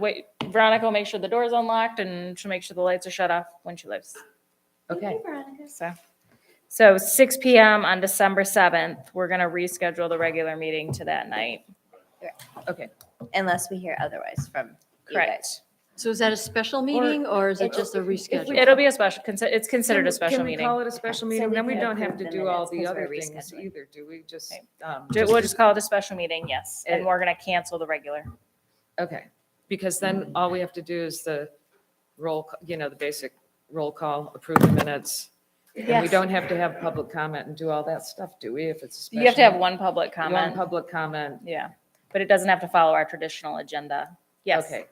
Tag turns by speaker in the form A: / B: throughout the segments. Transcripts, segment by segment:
A: wait, Veronica will make sure the door's unlocked and she'll make sure the lights are shut off when she leaves.
B: Okay,
C: Veronica.
A: So, so six PM on December seventh, we're gonna reschedule the regular meeting to that night.
B: okay.
C: Unless we hear otherwise from you guys.
A: Correct.
D: So is that a special meeting or is it just a reschedule?
A: It'll be a special, consi- it's considered a special
B: Can we
A: meeting.
B: call it a special meeting?
C: we
B: Then we
C: can
B: don't have
C: approve
B: to
C: the
B: do all
C: minutes
B: the
C: 'cause
B: other
C: we're
B: things
C: rescheduling.
B: either, do we? Just,
A: Right.
B: um,
A: Ju- We'll just call it a special meeting, yes, and we're gonna cancel the regular.
B: okay. Mm-hmm. Because then all we have to do is the roll, c- you know, the basic roll call, approve the minutes. And we
A: Yes.
B: don't have to have public comment and do all that stuff, do we, if it's a special?
A: You have to have one public
B: one
A: comment,
B: public comment.
A: yeah, but it doesn't have to follow our traditional agenda. Yes,
B: Okay.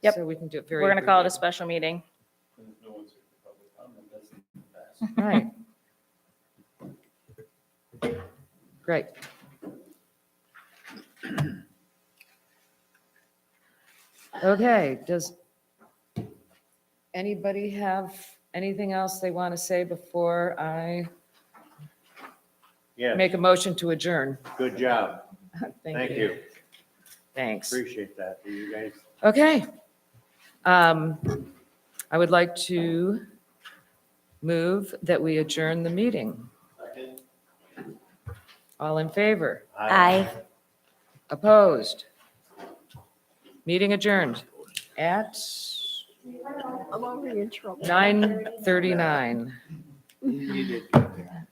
A: Yep.
B: So we can do it very.
A: we're gonna call it a
B: abbreviated.
A: special meeting.
E: There's no one's here for public comment, that's the best.
B: Right. Great. Okay, does anybody have anything else they want to say before I
E: Yeah,
B: make a motion to adjourn?
E: good job. Thank you.
B: Thanks.
E: Appreciate that. You guys
B: Okay. Um, I would like to move that we adjourn the meeting. All in favor?
C: Aye.
B: Opposed? Meeting adjourned at
F: I'm already in trouble.
B: 9:39.
E: You did good there.